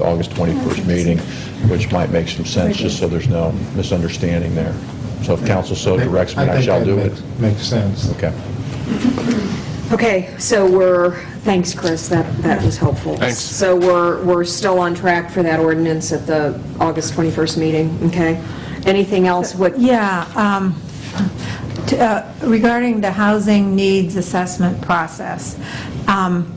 August 21st meeting, which might make some sense, just so there's no misunderstanding there. So if council so directs me, I shall do think it. that makes- Makes sense. Okay. Okay, so we're, thanks, Chris, that, that was helpful. Thanks. So we're, we're still on track for that ordinance at the August 21st meeting, okay? Anything else, what, Yeah, um, t- uh, regarding the housing needs assessment process, um,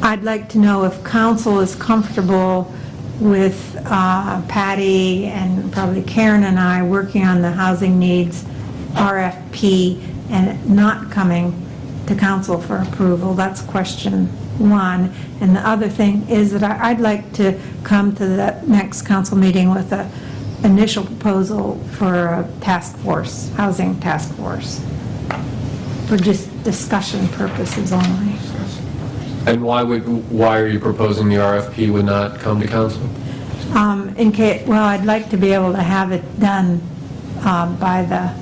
I'd like to know if council is comfortable with uh, Patty and probably Karen and I working on the housing needs RFP and not coming to council for approval. That's question one. And the other thing is that I- I'd like to come to the next council meeting with a initial proposal for a task force, housing task force, for just discussion purposes only. And why would, why are you proposing the RFP would not come to council? Um, In case, well, I'd like to be able to have it done um, by the,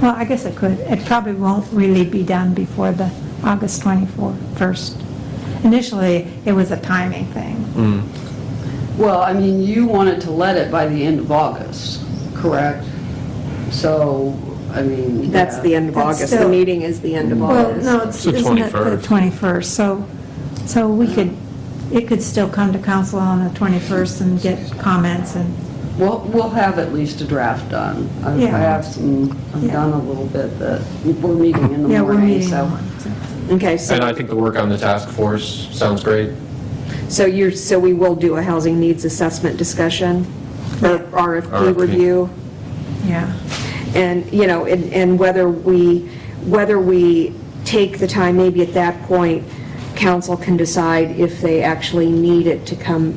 well, I guess it could. It probably won't really be done before the August 21st. Initially, it was a timing thing. Well, I mean, you wanted to let it by the end of August, correct? So, I mean. that's the end of That's August, the still- meeting is the end of Well, August. no, it's- It's the isn't it the 21st? 21st? So, so we could, it could still come to council on the 21st and get comments and, We'll, we'll have at least a draft done. I I Yeah. have some, I've Yeah. done a little bit that, we're meeting in the yeah, we're morning, meeting. so. on it, so. Okay, And so, I think the work on the task force sounds great. so you're, so we will do a housing needs assessment discussion, or RFP RFP. review? Yeah. And, you know, and and whether we, whether we take the time, maybe at that point, council can decide if they actually need it to come,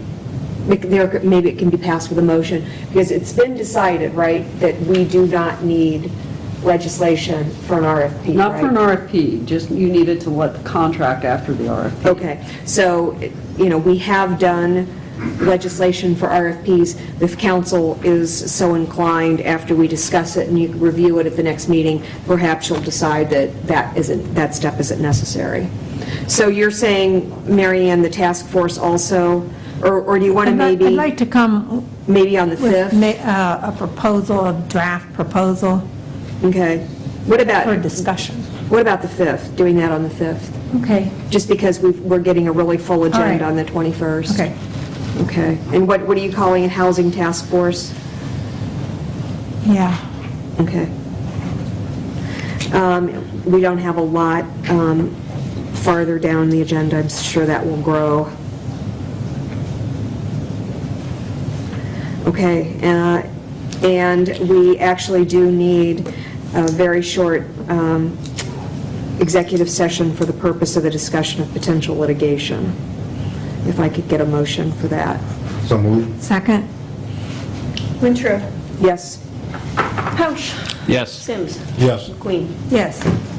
like, there- maybe it can be passed with a motion, because it's been decided, right, that we do not need legislation for an RFP, right? Not for an RFP, just you needed to let the contract after the RFP. Okay, so, you know, we have done legislation for RFPs. If council is so inclined, after we discuss it and you review it at the next meeting, perhaps you'll decide that that isn't, that step isn't necessary. So you're saying, Mary Ann, the task force also, or or do you want to I'd like- I'd maybe, like to come maybe on the with 5th? ma- uh, a proposal, a draft proposal Okay. What for about, discussion. what about the 5th, doing that on the 5th? Okay, Just because we've- we're getting a really full right. agenda on the 21st. okay. Okay, and what, what are you calling it, Housing Task Force? Yeah, Okay. Um, We don't have a lot um, farther down the agenda, I'm sure that will grow. Okay, uh, and we actually do need a very short um, executive session for the purpose of the discussion of potential litigation, if I could get a motion for that. So move. second? Wintrow. Yes? Pouch. Yes. Sims. Yes. Queen. Yes.